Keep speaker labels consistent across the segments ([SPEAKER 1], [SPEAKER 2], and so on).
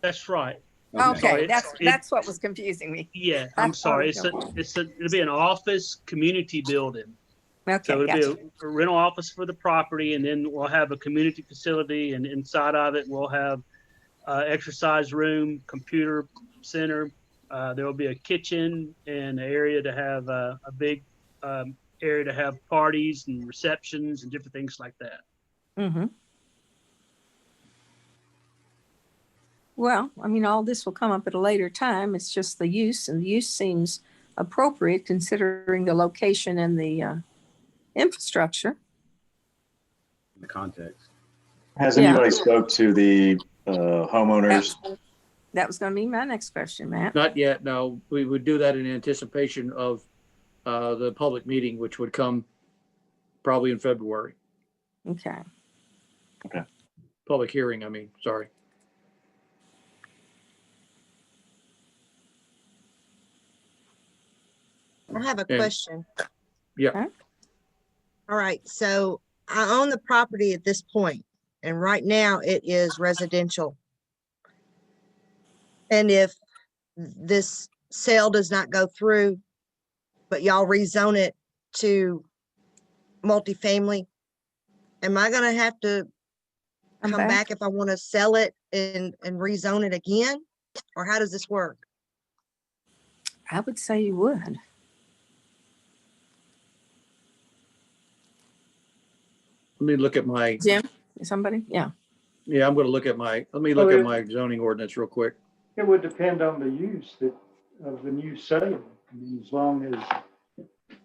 [SPEAKER 1] That's right.
[SPEAKER 2] Okay,
[SPEAKER 1] Sorry,
[SPEAKER 2] that's,
[SPEAKER 1] it-
[SPEAKER 2] that's what was confusing me.
[SPEAKER 1] Yeah, I'm
[SPEAKER 2] That's all
[SPEAKER 1] sorry.
[SPEAKER 2] we
[SPEAKER 1] It's a, it's a, it'll be an office community building. So
[SPEAKER 2] Okay,
[SPEAKER 1] it'll
[SPEAKER 2] gotcha.
[SPEAKER 1] be a rental office for the property and then we'll have a community facility and inside of it, we'll have uh, exercise room, computer center. Uh, there'll be a kitchen and an area to have uh, a big um, area to have parties and receptions and different things like that.
[SPEAKER 2] Mhm. Well, I mean, all this will come up at a later time. It's just the use and the use seems appropriate considering the location and the uh, infrastructure.
[SPEAKER 3] in the context.
[SPEAKER 4] Has
[SPEAKER 2] Yeah.
[SPEAKER 4] anybody spoke to the uh, homeowners?
[SPEAKER 2] That was going to be my next question, Matt.
[SPEAKER 5] Not yet, no. We would do that in anticipation of uh, the public meeting, which would come probably in February,
[SPEAKER 2] Okay.
[SPEAKER 5] public hearing, I mean, sorry.
[SPEAKER 6] I have a
[SPEAKER 5] Yeah.
[SPEAKER 6] question.
[SPEAKER 5] Yeah.
[SPEAKER 2] Okay.
[SPEAKER 6] All right, so I own the property at this point, and right now it is residential. And if this sale does not go through, but y'all rezone it to multifamily, am I gonna have to
[SPEAKER 2] I'm
[SPEAKER 6] come back if I want to sell it and, and rezone it again? Or how does this work?
[SPEAKER 2] I would say you would.
[SPEAKER 5] Let me look at my,
[SPEAKER 2] Jim, somebody? Yeah.
[SPEAKER 5] yeah, I'm going to look at my, let me look at my zoning ordinance real quick.
[SPEAKER 7] It would depend on the use that, of the new sale. I mean, as long as,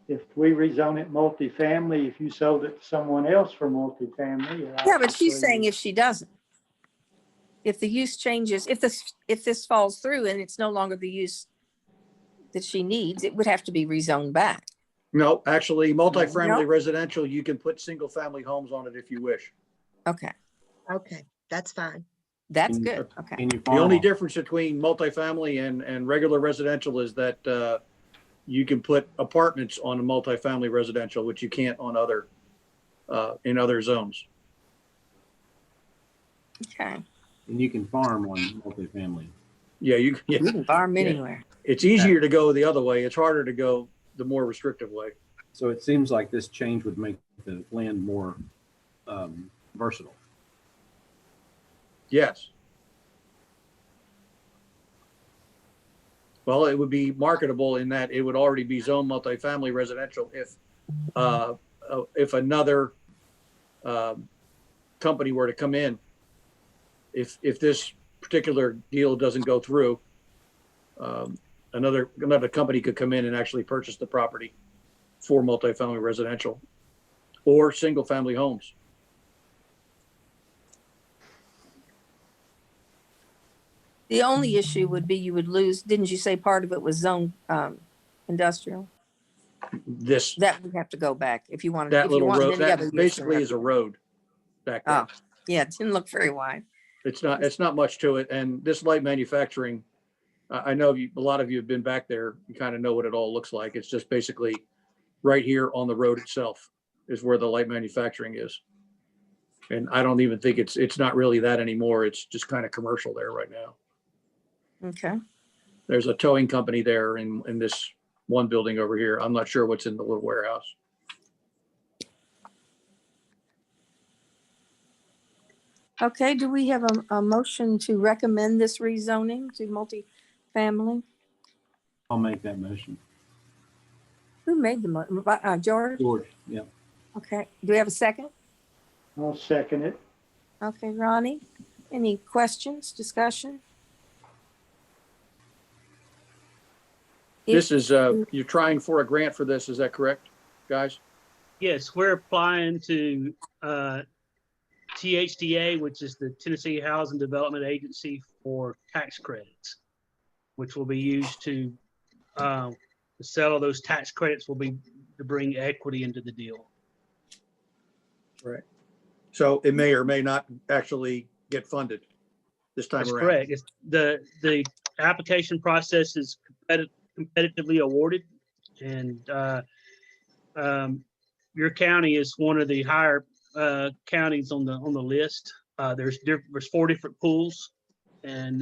[SPEAKER 7] if we rezone it multifamily, if you sold it to someone else for multifamily.
[SPEAKER 2] Yeah, but she's
[SPEAKER 7] obviously-
[SPEAKER 2] saying if she doesn't. If the use changes, if this, if this falls through and it's no longer the use that she needs, it would have to be rezoned back.
[SPEAKER 5] No, actually,
[SPEAKER 2] No.
[SPEAKER 5] multifamily residential, you can put single-family homes on it if you wish.
[SPEAKER 2] Okay,
[SPEAKER 6] Okay, that's fine.
[SPEAKER 2] that's
[SPEAKER 5] Mm-hmm.
[SPEAKER 3] Mm.
[SPEAKER 2] good. Okay.
[SPEAKER 3] Can you
[SPEAKER 5] The only difference between multifamily and, and regular residential is that uh, you can put apartments on a multifamily residential, which you can't on other, uh, in other zones.
[SPEAKER 2] Okay.
[SPEAKER 3] And you can farm on multifamily.
[SPEAKER 5] Yeah, you, yeah.
[SPEAKER 2] You can farm
[SPEAKER 5] Yeah.
[SPEAKER 2] anywhere.
[SPEAKER 5] it's easier to go the other way. It's harder to go the more restrictive way.
[SPEAKER 3] So it seems like this change would make the land more um, versatile.
[SPEAKER 5] Yes. Well, it would be marketable in that it would already be zone multifamily residential if, uh, uh, if another, um, company were to come in. If, if this particular deal doesn't go through, um, another, another company could come in and actually purchase the property for multifamily residential or single-family homes.
[SPEAKER 2] The only issue would be you would lose, didn't you say part of it was zone, um, industrial?
[SPEAKER 5] This,
[SPEAKER 2] That would have to go back if you wanted.
[SPEAKER 5] that
[SPEAKER 2] if you
[SPEAKER 5] little
[SPEAKER 2] wanted
[SPEAKER 5] road,
[SPEAKER 2] any other use or
[SPEAKER 5] that basically is
[SPEAKER 2] whatever.
[SPEAKER 5] a road back there.
[SPEAKER 2] Oh. Yeah, it didn't look very wide.
[SPEAKER 5] It's not, it's not much to it. And this light manufacturing, I, I know you, a lot of you have been back there. You kind of know what it all looks like. It's just basically right here on the road itself is where the light manufacturing is. And I don't even think it's, it's not really that anymore. It's just kind of commercial there right now.
[SPEAKER 2] Okay.
[SPEAKER 5] There's a towing company there in, in this one building over here. I'm not sure what's in the little warehouse.
[SPEAKER 2] Okay, do we have a, a motion to recommend this rezoning to multifamily?
[SPEAKER 3] I'll make that motion.
[SPEAKER 2] Who made the mo, uh, George?
[SPEAKER 3] George, yeah.
[SPEAKER 2] Okay, do we have a second?
[SPEAKER 7] I'll second it.
[SPEAKER 2] Okay, Ronnie, any questions, discussion? If-
[SPEAKER 5] This is, uh, you're trying for a grant for this. Is that correct, guys?
[SPEAKER 1] Yes, we're applying to uh, THDA, which is the Tennessee Housing Development Agency for tax credits, which will be used to uh, sell those tax credits will be to bring equity into the deal.
[SPEAKER 5] So it may or may not actually get funded this time
[SPEAKER 1] That's
[SPEAKER 5] around.
[SPEAKER 1] correct. It's the, the application process is competi- competitively awarded and, uh, um, your county is one of the higher, uh, counties on the, on the list. Uh, there's, diff- there's four different pools and,